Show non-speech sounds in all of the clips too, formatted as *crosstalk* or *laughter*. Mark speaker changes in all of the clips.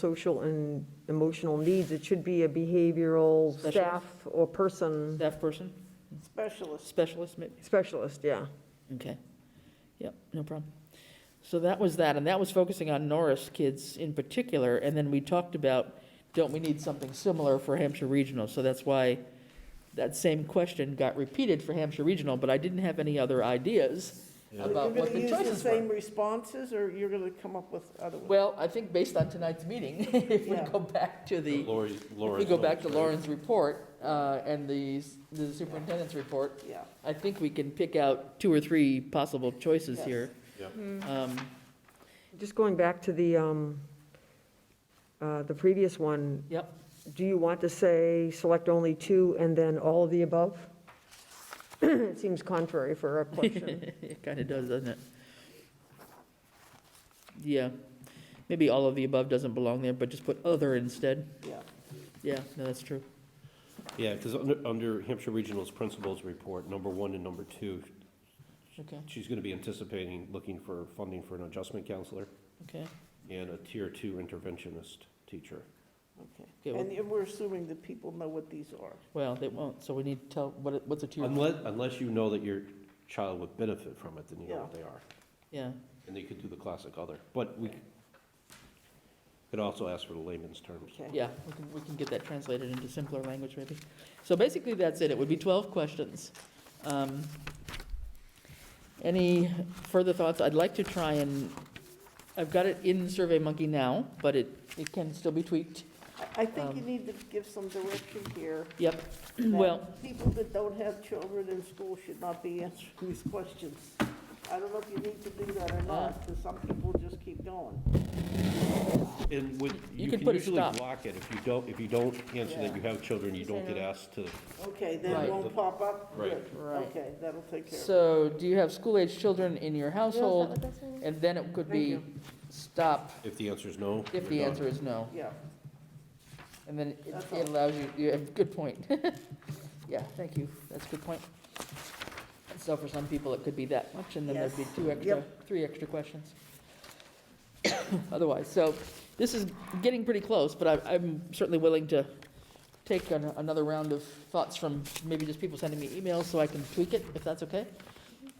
Speaker 1: social and emotional needs, it should be a behavioral
Speaker 2: Specialist.
Speaker 1: staff or person,
Speaker 2: Staff person,
Speaker 3: Specialist.
Speaker 2: specialist maybe?
Speaker 1: specialist, yeah.
Speaker 2: Okay. Yep, no problem. So that was that, and that was focusing on Norris kids in particular, and then we talked about, don't we need something similar for Hampshire Regional? So that's why that same question got repeated for Hampshire Regional, but I didn't have any other ideas about what the
Speaker 3: You're going to use
Speaker 2: choices
Speaker 3: the same
Speaker 2: were.
Speaker 3: responses, or you're going to come up with other ones?
Speaker 2: Well, I think based on tonight's meeting, *laughs* if we
Speaker 3: Yeah.
Speaker 2: go back to the.
Speaker 4: Lori,
Speaker 2: If we go back to Lauren's report uh, and the s- the superintendent's report,
Speaker 3: Yeah,
Speaker 2: I think we can pick out two or three possible choices
Speaker 3: Yes. Hmm.
Speaker 2: here.
Speaker 4: Yep.
Speaker 2: Um,
Speaker 1: Just going back to the, um, uh, the previous one.
Speaker 2: Yep.
Speaker 1: Do you want to say, select only two and then all of the above? *clears throat* It seems contrary for a
Speaker 2: *laughs*
Speaker 1: question.
Speaker 2: It kind of does, doesn't it? Yeah, maybe all of the above doesn't belong there, but just put other instead.
Speaker 3: yeah.
Speaker 2: Yeah, no, that's true.
Speaker 4: Yeah, because under, under Hampshire Regional's principals report, number one and number two,
Speaker 2: Okay,
Speaker 4: she's going to be anticipating looking for funding for an adjustment counselor
Speaker 2: okay.
Speaker 4: and a tier two interventionist teacher.
Speaker 2: Okay, well-
Speaker 3: And and we're assuming that people know what these are.
Speaker 2: Well, they won't, so we need to tell, what, it- what's a tier?
Speaker 4: Unless, unless you know that your child would benefit from it, then you know what they are.
Speaker 2: Yeah,
Speaker 4: And they could do the classic other, but we could also ask for the layman's terms.
Speaker 3: Okay.
Speaker 2: yeah, we can, we can get that translated into simpler language maybe. So basically, that's it. It would be 12 questions. Um, Any further thoughts? I'd like to try and, I've got it in SurveyMonkey now, but it, it can still be tweaked.
Speaker 3: I- I think you need to give some direction
Speaker 2: *clears throat*
Speaker 3: here.
Speaker 2: Yep,
Speaker 3: that
Speaker 2: um, well.
Speaker 3: People that don't have children in school should not be answering these questions. I don't know if you need to do that or not, because some people just keep going.
Speaker 4: And would,
Speaker 2: You
Speaker 4: you
Speaker 2: could
Speaker 4: can
Speaker 2: put a
Speaker 4: usually
Speaker 2: stop.
Speaker 4: block it. If you don't, if you don't answer that
Speaker 3: Yeah.
Speaker 4: you have children, you don't get asked to
Speaker 3: Okay, then
Speaker 2: Right.
Speaker 3: it won't pop up?
Speaker 4: Right.
Speaker 3: Good.
Speaker 2: Right.
Speaker 3: Okay, that'll take care of it.
Speaker 2: So do you have school-age children in your household? And then it could be
Speaker 3: Thank
Speaker 2: stop
Speaker 4: If the answer is no.
Speaker 2: if
Speaker 4: you're
Speaker 2: the
Speaker 4: done.
Speaker 2: answer is no.
Speaker 3: Yeah,
Speaker 2: And then it-
Speaker 3: That's
Speaker 2: it
Speaker 3: all.
Speaker 2: allows you, you have, good point. *laughs* Yeah, thank you, that's a good point. So for some people, it could be that much, and then there'd be
Speaker 3: Yes.
Speaker 2: two extra, three extra questions. *coughs* Otherwise, so this is getting pretty close, but I- I'm certainly willing to take an- another round of thoughts from maybe just people sending me emails so I can tweak it, if that's okay?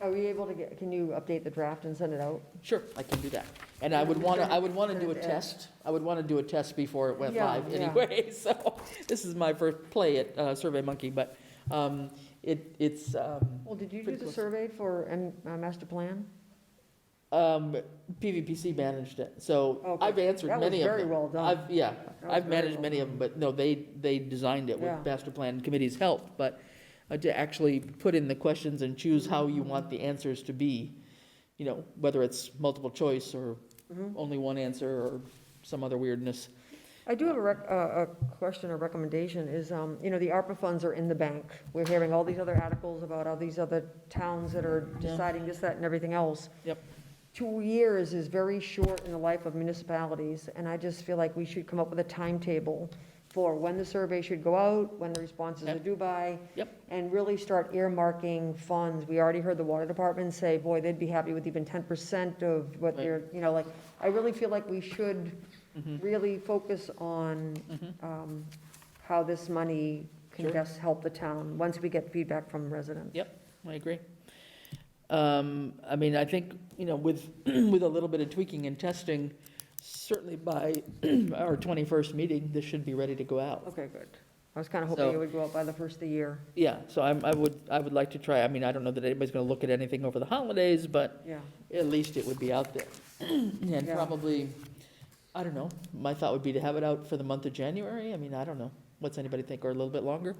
Speaker 1: Are we able to get, can you update the draft and send it out?
Speaker 2: Sure, I can do that. And I would want to, I would want to do a test. I would want to do a test before it went
Speaker 1: Yeah,
Speaker 2: live
Speaker 1: yeah.
Speaker 2: anyway. *laughs* So this is my first play at uh, SurveyMonkey, but um, it, it's, um,
Speaker 1: Well, did you do
Speaker 2: Pretty
Speaker 1: the
Speaker 2: close.
Speaker 1: survey for, and, uh, master plan?
Speaker 2: um, PVPC managed it. So
Speaker 1: Okay.
Speaker 2: I've answered
Speaker 1: That was
Speaker 2: many of
Speaker 1: very
Speaker 2: them.
Speaker 1: well done.
Speaker 2: I've, yeah,
Speaker 1: That was
Speaker 2: I've
Speaker 1: very
Speaker 2: managed
Speaker 1: well
Speaker 2: many of them, but no, they, they designed it with
Speaker 1: Yeah.
Speaker 2: master plan committee's help. But uh, to actually put in the questions and choose how you want the answers to be, you know, whether it's multiple choice or
Speaker 1: Mhm.
Speaker 2: only one answer or some other weirdness.
Speaker 1: I do have a rec, a, a question or recommendation is, um, you know, the ARPA funds are in the bank. We're hearing all these other articles about all these other towns that are
Speaker 2: Yeah.
Speaker 1: deciding this, that, and everything else.
Speaker 2: Yep.
Speaker 1: Two years is very short in the life of municipalities, and I just feel like we should come up with a timetable for when the survey should go out, when the responses are
Speaker 2: Yep.
Speaker 1: due by.
Speaker 2: Yep.
Speaker 1: And really start earmarking funds. We already heard the water department say, boy, they'd be happy with even ten percent of what
Speaker 2: Right. Mm-hmm.
Speaker 1: they're, you know, like, I really feel like we should really focus on um, how this money can
Speaker 2: Sure.
Speaker 1: best help the town, once we get feedback from residents.
Speaker 2: Yep. I agree. Um, I mean, I think, you know, with, *clears throat* with a little bit of tweaking and testing, certainly by *clears throat* our 21st meeting, this should be ready to go out.
Speaker 1: Okay, good. I was kind of hoping
Speaker 2: So-
Speaker 1: it would go up by the first of the year.
Speaker 2: Yeah, so I'm, I would, I would like to try, I mean, I don't know that anybody's going to look at anything over the holidays, but
Speaker 1: Yeah,
Speaker 2: at least it would be out there. *clears throat* And
Speaker 1: Yeah.
Speaker 2: probably, I don't know, my thought would be to have it out for the month of January. I mean, I don't know. What's anybody think, or a little bit longer?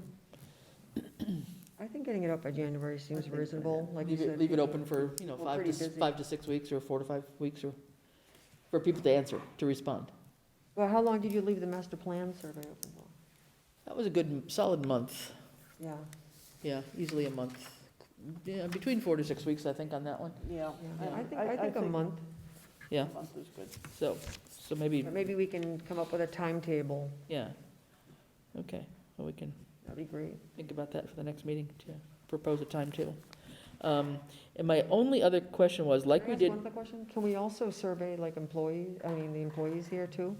Speaker 1: I think getting it up by January seems
Speaker 3: think so,
Speaker 1: reasonable, like you
Speaker 2: Leave it,
Speaker 1: said.
Speaker 2: leave it open for, you know,
Speaker 1: We're
Speaker 2: five to,
Speaker 1: pretty
Speaker 2: s-
Speaker 1: busy.
Speaker 2: five to six weeks, or four to five weeks, or, for people to answer, to respond.
Speaker 1: Well, how long did you leave the master plan survey open for?
Speaker 2: That was a good, m- solid month,
Speaker 1: Yeah,
Speaker 2: yeah, easily a month, yeah, between four to six weeks, I think, on that one,
Speaker 3: yeah.
Speaker 1: yeah, I think, I think a month.
Speaker 2: yeah,
Speaker 3: A month is good.
Speaker 2: so, so maybe,
Speaker 1: Or maybe we can come up with a timetable.
Speaker 2: yeah. Okay, well, we can
Speaker 1: That'd be great.
Speaker 2: think about that for the next meeting, to propose a timetable. Um, and my only other question was, like
Speaker 1: Can I
Speaker 2: we
Speaker 1: ask
Speaker 2: did,
Speaker 1: One other question, can we also survey like employees, I mean, the employees here too?